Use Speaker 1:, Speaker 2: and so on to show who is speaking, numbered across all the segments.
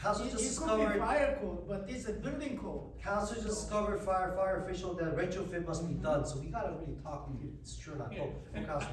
Speaker 1: Council
Speaker 2: It-
Speaker 1: just
Speaker 2: It could be
Speaker 1: discovered,
Speaker 2: fire code, but it's a building code.
Speaker 1: council just discovered fire, fire official that retrofit must be done, so we gotta really talk, we could secure that
Speaker 3: Yeah,
Speaker 1: vote from
Speaker 3: and
Speaker 1: council.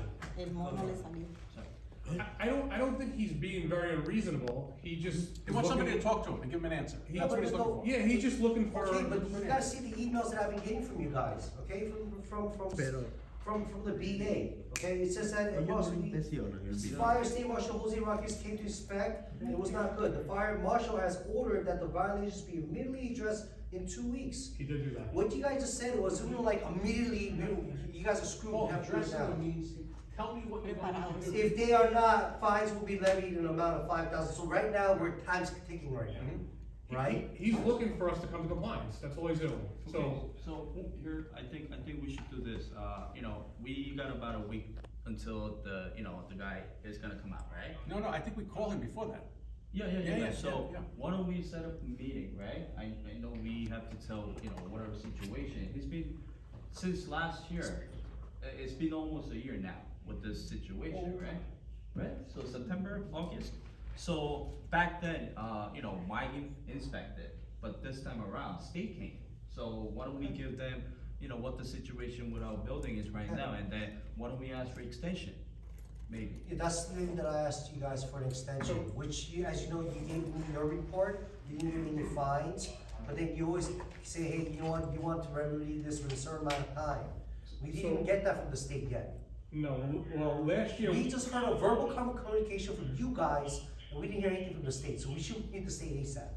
Speaker 3: I, I don't, I don't think he's being very unreasonable, he just.
Speaker 4: He wants somebody to
Speaker 3: looking-
Speaker 4: talk to him and give him an answer.
Speaker 3: He-
Speaker 4: That's what he's looking for.
Speaker 3: Yeah, he's just looking for.
Speaker 1: Okay, but you gotta see the emails that I've been getting from you guys, okay, from, from, from, from, from the BA, okay, it says that it was, The Fire State Marshal Jose Rodriguez came to inspect, and it was not good, the fire marshal has ordered that the violations be immediately addressed in two weeks.
Speaker 3: He did do that.
Speaker 1: What you guys just said was, we were like immediately, we- you guys are screwed, we
Speaker 3: Oh,
Speaker 5: Well,
Speaker 1: have to do it
Speaker 5: address
Speaker 1: now.
Speaker 5: it means, tell me what you're going to do.
Speaker 1: If they are not, fines will be levied in an amount of five thousand, so right now, we're time's ticking right
Speaker 3: Mm-hmm.
Speaker 1: now, right?
Speaker 3: He's looking for us to come to compliance, that's all he's doing, so.
Speaker 6: So here, I think, I think we should do this, uh, you know, we got about a week until the, you know, the guy is gonna come out, right?
Speaker 4: No, no, I think we call him before that.
Speaker 6: Yeah, yeah,
Speaker 4: Yeah,
Speaker 6: yeah,
Speaker 4: yeah,
Speaker 6: yeah, so
Speaker 4: yeah, yeah.
Speaker 6: why don't we set up a meeting, right? I, I know we have to tell, you know, whatever situation, it's been, since last year, i- it's been almost a year now with this situation,
Speaker 4: Oh.
Speaker 6: right? Right, so September, August, so back then, uh, you know, my in- inspected, but this time around, state came. So why don't we give them, you know, what the situation with our building is right now, and then why don't we ask for extension, maybe?
Speaker 1: Yeah, that's the thing that I asked you guys for an extension, which you, as you know, you gave me your report, you didn't give me the fines, but then you always say, hey, you want, you want to remedy this with a certain amount of time. We didn't
Speaker 3: So-
Speaker 1: get that from the state yet.
Speaker 3: No, well, last year.
Speaker 1: We just heard a verbal com- communication from you guys, and we didn't hear anything from the state, so we should need the state ASAP,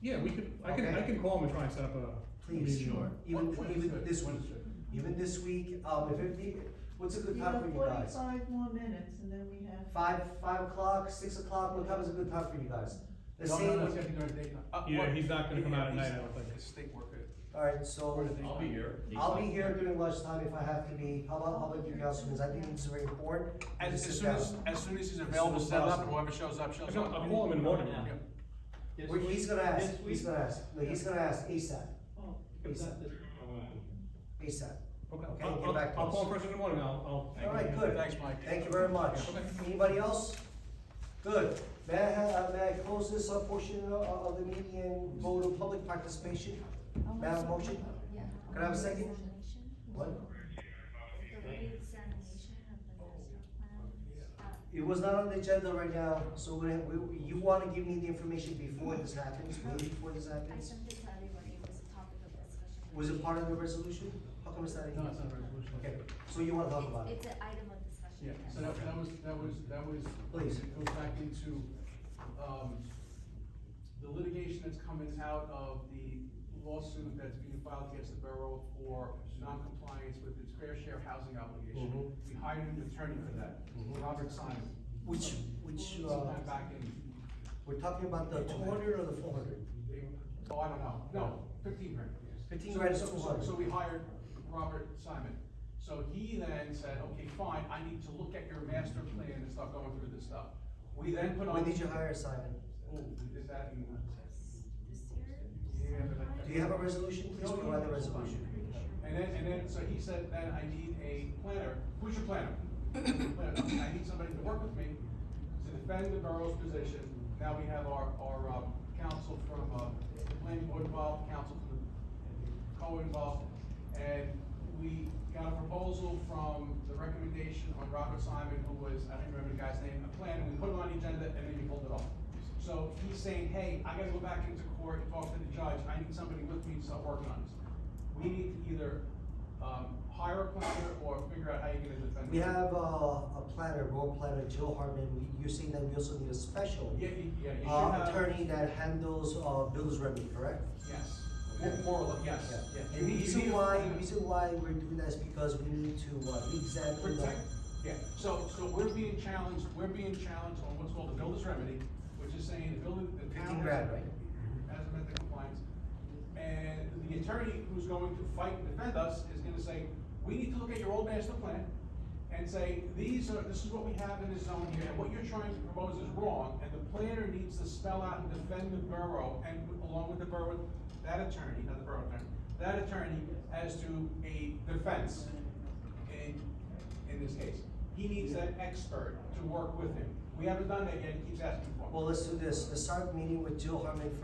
Speaker 3: Yeah, we could, I can, I
Speaker 1: Okay.
Speaker 3: can call him and try and set up a.
Speaker 1: please.
Speaker 3: meeting.
Speaker 1: Even,
Speaker 5: What
Speaker 1: even
Speaker 5: Wednesday?
Speaker 1: this week,
Speaker 5: Wednesday.
Speaker 1: even this week, um, if it be, what's a good
Speaker 7: You
Speaker 1: time
Speaker 7: have
Speaker 1: for you guys?
Speaker 7: forty-five more minutes and then we have.
Speaker 1: Five, five o'clock, six o'clock, what time is a good time for you guys? Let's
Speaker 5: No,
Speaker 1: say,
Speaker 5: no, no, it's gonna be during daytime.
Speaker 4: Uh,
Speaker 3: Yeah,
Speaker 4: what-
Speaker 3: he's not gonna come out at
Speaker 4: Yeah, he's-
Speaker 3: night, I don't think.
Speaker 4: He's a state worker.
Speaker 1: alright, so.
Speaker 6: I'll be here.
Speaker 1: I'll be here during lunchtime if I have to be, how about, how about you guys, because I think it's very important. to
Speaker 4: As,
Speaker 1: sit
Speaker 4: as soon as,
Speaker 1: down.
Speaker 4: as soon as he's
Speaker 1: As
Speaker 4: available,
Speaker 1: soon as
Speaker 4: set up, and
Speaker 1: possible.
Speaker 4: whoever shows up, shows
Speaker 3: I'll
Speaker 4: up.
Speaker 3: I'll call him in the morning.
Speaker 4: Yeah.
Speaker 5: This
Speaker 1: We're- He's
Speaker 5: week-
Speaker 1: gonna ask,
Speaker 5: this
Speaker 1: he's
Speaker 5: week-
Speaker 1: gonna ask, no, he's gonna ask ASAP,
Speaker 5: Oh, comes out this-
Speaker 1: ASAP. Okay,
Speaker 3: Okay, Um, I'll,
Speaker 1: get
Speaker 3: I'll,
Speaker 1: back to
Speaker 3: I'll
Speaker 1: us.
Speaker 3: call him first thing in the morning, I'll, I'll.
Speaker 1: Alright, good.
Speaker 4: Thanks, Mike.
Speaker 1: Thank you very much. Anybody else? Good. May I, ha- uh, may I close this uh, portion of, of the meeting and go to public participation? May I have a motion?
Speaker 8: Oh, Yeah.
Speaker 1: Can I have a second?
Speaker 8: Examination.
Speaker 1: What?
Speaker 8: The reexamination of the
Speaker 5: Oh,
Speaker 8: master plan. Uh,
Speaker 1: It was not on the agenda right now, so we, we, you wanna give me the information before this happens, way before this
Speaker 8: I
Speaker 1: happens?
Speaker 8: sent it to everybody, it was a topic of discussion.
Speaker 1: Was it part of the resolution? How come it's not in here?
Speaker 5: No, it's not a resolution.
Speaker 1: Okay, so you wanna talk about it?
Speaker 8: It's, it's an item of discussion.
Speaker 5: Yeah,
Speaker 8: yes.
Speaker 5: so that, that was, that was, that was.
Speaker 1: Please.
Speaker 5: It goes back into, um, the litigation that's coming out of the lawsuit that's being filed against the borough for non-compliance with its fair share housing obligation. We hired an attorney for that, Robert Simon.
Speaker 1: Which, which, uh,
Speaker 5: Sometime back in
Speaker 1: we're talking about the two hundred or the four hundred?
Speaker 5: Oh, I don't know, no, fifteen grand.
Speaker 1: 15
Speaker 5: So-
Speaker 1: grand is
Speaker 5: so- so-
Speaker 1: 200.
Speaker 5: So we hired Robert Simon, so he then said, okay, fine, I need to look at your master plan and start going through this stuff. We then put on.
Speaker 1: When did you hire Simon?
Speaker 5: Oh, is that in?
Speaker 8: This year?
Speaker 5: Yeah, but I-
Speaker 1: Do you have a resolution? Please provide the resolution.
Speaker 5: And then, and then, so he said, then I need a planner, who's your planner? Planner. I need somebody to work with me to defend the borough's position. Now we have our, our, um, counsel from, uh, the planning board involved, counsel from the co-involved. And we got a proposal from the recommendation on Robert Simon, who was, I don't remember the guy's name, a planner, we put it on the agenda and then you pulled it off. So he's saying, hey, I gotta go back into court and talk to the judge, I need somebody with me to start working on this we need to either, um, hire a planner or figure out how you're gonna defend it.
Speaker 1: We have, uh, a planner, road planner, Jill Hartman, We- you're saying that we also need a special,
Speaker 5: Yeah, you, yeah, you should
Speaker 1: uh,
Speaker 5: have.
Speaker 1: attorney that handles, uh, bills remedy, correct?
Speaker 5: Yes, more, more or less, yes,
Speaker 1: Yeah.
Speaker 5: yeah. You
Speaker 1: And the
Speaker 5: need- you need
Speaker 1: reason
Speaker 5: a
Speaker 1: why,
Speaker 5: planner.
Speaker 1: the reason why we're doing that is because we need to, uh, examine the.
Speaker 5: Protect, yeah, so, so we're being challenged, we're being challenged on what's called the builder's remedy, which is saying the building, the town.
Speaker 1: 15
Speaker 5: Mm-hmm.
Speaker 1: grand, right?
Speaker 5: Hasn't met the compliance. And the attorney who's going to fight and defend us is gonna say, we need to look at your old master plan and say, these are, this is what we have in this zone here, and what you're trying to propose is wrong, and the planner needs to spell out and defend the borough, and along with the borough, that attorney, not the borough attorney, that attorney as to a defense in, in this case. He needs an expert to work with him. We haven't done that yet, he keeps asking for it.
Speaker 1: Well, let's do this, let's start meeting with Jill Hartman first.